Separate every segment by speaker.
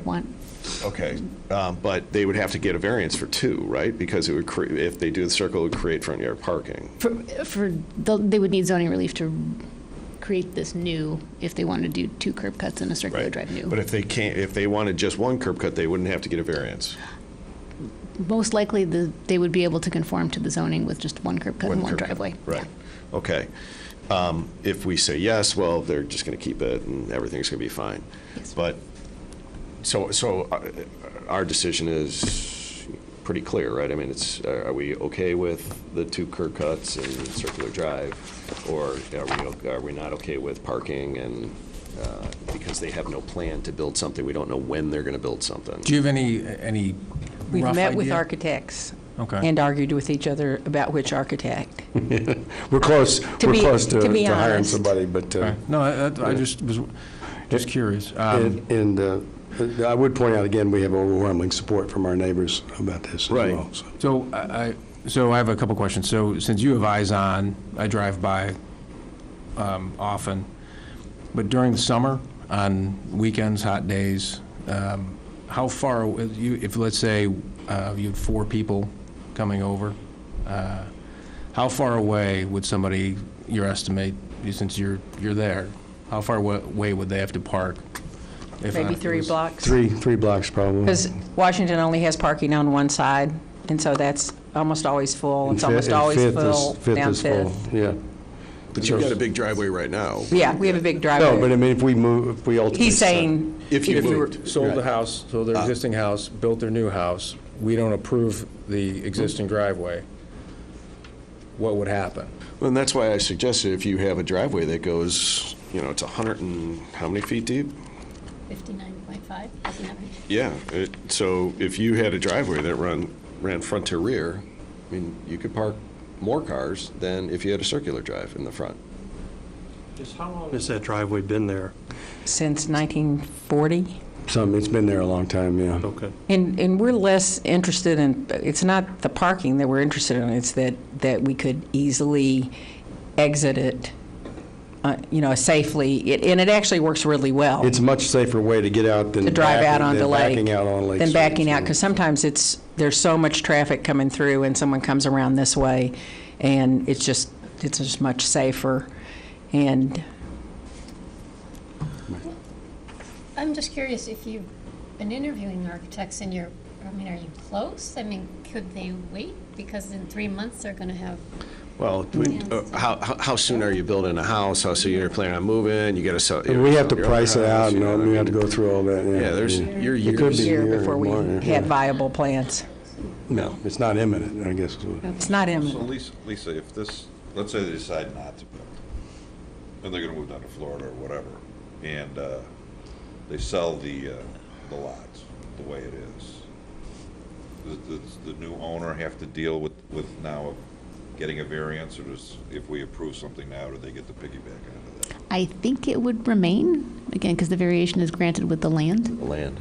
Speaker 1: one.
Speaker 2: Okay, um, but they would have to get a variance for two, right? Because it would, cre- if they do the circle, it would create front yard parking.
Speaker 1: For, for, the- they would need zoning relief to create this new, if they wanted to do two curb cuts and a circular
Speaker 2: Right.
Speaker 1: drive
Speaker 2: But
Speaker 1: new.
Speaker 2: if they can't, if they wanted just one curb cut, they wouldn't have to get a variance.
Speaker 1: Most likely, the, they would be able to conform to the zoning with just one curb cut and one
Speaker 2: curb cut.
Speaker 1: driveway.
Speaker 2: Right, okay. Um, If we say yes, well, they're just going to keep it and everything's going to be fine.
Speaker 1: Yes.
Speaker 2: But, so, so uh, our decision is pretty clear, right? I mean, it's, uh, are are we okay with the two curb cuts and circular drive? Or are we, are we not okay with parking and, uh, because they have no plan to build something, we don't know when they're going to build something.
Speaker 3: Do you have any, any
Speaker 4: We've
Speaker 3: rough
Speaker 4: met with
Speaker 3: idea?
Speaker 4: architects.
Speaker 3: Okay.
Speaker 4: And argued with each other about which architect.
Speaker 5: We're close, we're
Speaker 4: be-
Speaker 5: close to
Speaker 4: to be
Speaker 5: to hiring
Speaker 4: honest.
Speaker 5: somebody, but, uh,
Speaker 3: Okay. No, I- I, I just was, just curious. Um,
Speaker 5: and and, uh, I would point out again, we have overwhelming support from our neighbors about this as
Speaker 2: Right.
Speaker 5: well. so.
Speaker 3: So I, I- so I have a couple questions. So since you have eyes on, I drive by um, often, but during the summer, on weekends, hot days, um, how far, aw- you- if, let's say, uh, you have four people coming over, uh, how far away would somebody, your estimate, since you're, you're there, how far wa- away would they have to park? if, uh,
Speaker 4: Maybe
Speaker 3: it
Speaker 4: three
Speaker 3: was-
Speaker 4: blocks.
Speaker 5: Three, three blocks probably.
Speaker 4: Because Washington only has parking on one side, and so that's almost always full.
Speaker 5: And
Speaker 4: It's
Speaker 5: fi-
Speaker 4: almost
Speaker 5: and
Speaker 4: always
Speaker 5: Fifth is-
Speaker 4: full
Speaker 5: Fifth
Speaker 4: down
Speaker 5: is full,
Speaker 4: Fifth.
Speaker 5: yeah.
Speaker 2: But you've got a big driveway right now.
Speaker 4: Yeah, we have a big
Speaker 5: No, but uh, I
Speaker 4: driveway.
Speaker 5: mean, if we move, if we ultimately.
Speaker 4: He's saying,
Speaker 2: If you
Speaker 3: If you
Speaker 2: moved.
Speaker 3: were, sold the house, sold their existing house, built their new house, we don't approve the existing driveway, what would happen?
Speaker 2: Well, and that's why I suggested if you have a driveway that goes, you know, it's 100 and, how many feet deep?
Speaker 1: 59.5 as an average.
Speaker 2: Yeah, it- so if you had a driveway that run, ran front to rear, I mean, you could park more cars than if you had a circular drive in the front.
Speaker 6: Just how long has that driveway been there?
Speaker 4: since 1940.
Speaker 5: Some, it's been there a long time, yeah.
Speaker 6: Okay.
Speaker 4: And, and we're less interested in, it's not the parking that we're interested in, it's that, that we could easily exit it, uh, you know, safely, It- and it actually works really well.
Speaker 5: It's a much safer way to get out than.
Speaker 4: To drive out
Speaker 5: backing-
Speaker 4: onto
Speaker 5: than
Speaker 4: Lake.
Speaker 5: Backing out on Lake.
Speaker 4: Than
Speaker 5: Street,
Speaker 4: backing out,
Speaker 5: so.
Speaker 4: because sometimes it's, there's so much traffic coming through, and someone comes around this way, and it's just, it's just much safer, and
Speaker 7: I'm just curious if you've been interviewing architects and you're, I mean, are you close? I mean, could they wait? Because in three months, they're going to have,
Speaker 2: Well, uh, how, how- how soon are you building a house? How soon you're planning on moving? You gotta sell.
Speaker 5: And we have to
Speaker 2: your own
Speaker 5: price it
Speaker 2: house,
Speaker 5: out,
Speaker 2: you
Speaker 5: and
Speaker 2: know what I
Speaker 5: all- we have to
Speaker 2: mean?
Speaker 5: go through all that, yeah.
Speaker 2: Yeah, there's, you're
Speaker 5: It could
Speaker 2: years.
Speaker 5: be a
Speaker 4: here
Speaker 5: year
Speaker 4: before
Speaker 5: or
Speaker 4: we
Speaker 5: more, yeah.
Speaker 4: had viable plans.
Speaker 5: No, it's not imminent, I guess. is what-
Speaker 4: It's not
Speaker 8: So
Speaker 4: imminent.
Speaker 8: Lisa, Lisa, if this, let's say they decide not to build, and they're gonna move down to Florida or whatever, and, uh, they sell the, uh, the lots the way it is. Does, does the new owner have to deal with, with now getting a variance, or does, if we approve something now, do they get the piggyback out of that?
Speaker 1: I think it would remain, again, because the variation is granted with the land.
Speaker 2: The Land.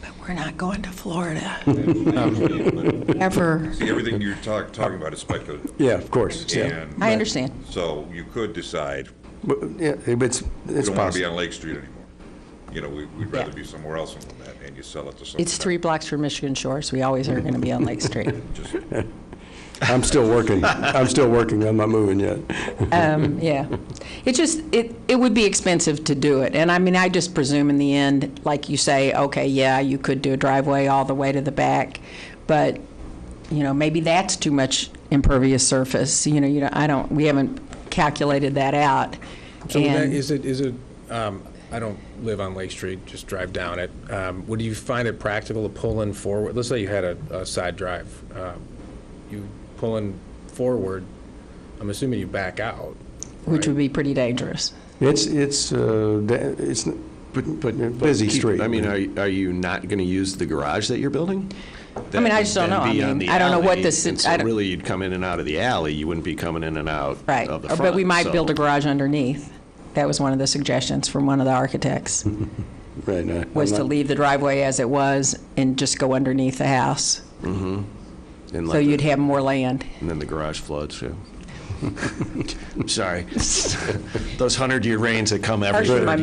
Speaker 4: But we're not going to Florida.
Speaker 8: But
Speaker 4: Ever.
Speaker 8: See, everything you're talk, talking about is speculative,
Speaker 5: Yeah, of course, yeah.
Speaker 8: and.
Speaker 4: I understand.
Speaker 8: So you could decide,
Speaker 5: But, yeah, it's,
Speaker 8: we
Speaker 5: it's
Speaker 8: don't wanna be on
Speaker 5: possible.
Speaker 8: Lake Street anymore. You know, we, we'd rather
Speaker 4: Yeah.
Speaker 8: be somewhere else than that, and you sell it to someone.
Speaker 4: It's three blocks from Michigan Shores. We always are going to be on Lake Street.
Speaker 8: Just
Speaker 5: I'm still working, I'm still working, I'm not moving yet.
Speaker 4: Um, Yeah. It just, it, it would be expensive to do it. And I mean, I just presume in the end, like you say, okay, yeah, you could do a driveway all the way to the back, but, you know, maybe that's too much impervious surface. You know, you know, I don't, we haven't calculated that out.
Speaker 3: So would that-
Speaker 4: And-
Speaker 3: is it, is it, um, I don't live on Lake Street, just drive down it. Um, Would you find it practical to pull in forward? Let's say you had a, a side drive. um, You pull in forward, I'm assuming you back out.
Speaker 4: Which would be pretty dangerous.
Speaker 5: It's, it's, uh, da- it's n- but busy
Speaker 2: Keep-
Speaker 5: street.
Speaker 2: I mean, are, you- are you not gonna use the garage that you're building?
Speaker 4: I mean,
Speaker 2: That
Speaker 4: I
Speaker 2: would
Speaker 4: just don't
Speaker 2: then
Speaker 4: know. I
Speaker 2: be on
Speaker 4: mean,
Speaker 2: the
Speaker 4: I don't know what
Speaker 2: alley,
Speaker 4: this-
Speaker 2: And
Speaker 4: I
Speaker 2: so
Speaker 4: don't-
Speaker 2: really, you'd come in and out of the alley. You wouldn't be coming in and out of the
Speaker 4: Right.
Speaker 2: front.
Speaker 4: Or- But we might
Speaker 2: so-
Speaker 4: build a garage underneath. That was one of the suggestions from one of the architects,
Speaker 5: Right, no, I'm
Speaker 4: was to
Speaker 5: not-
Speaker 4: leave the driveway as it was and just go underneath the house.
Speaker 2: and
Speaker 4: So
Speaker 2: let the-
Speaker 4: you'd have more land.
Speaker 2: And then the garage floods, yeah. I'm sorry. Those hundred-year rains that come every
Speaker 4: Harsh with
Speaker 2: third
Speaker 4: my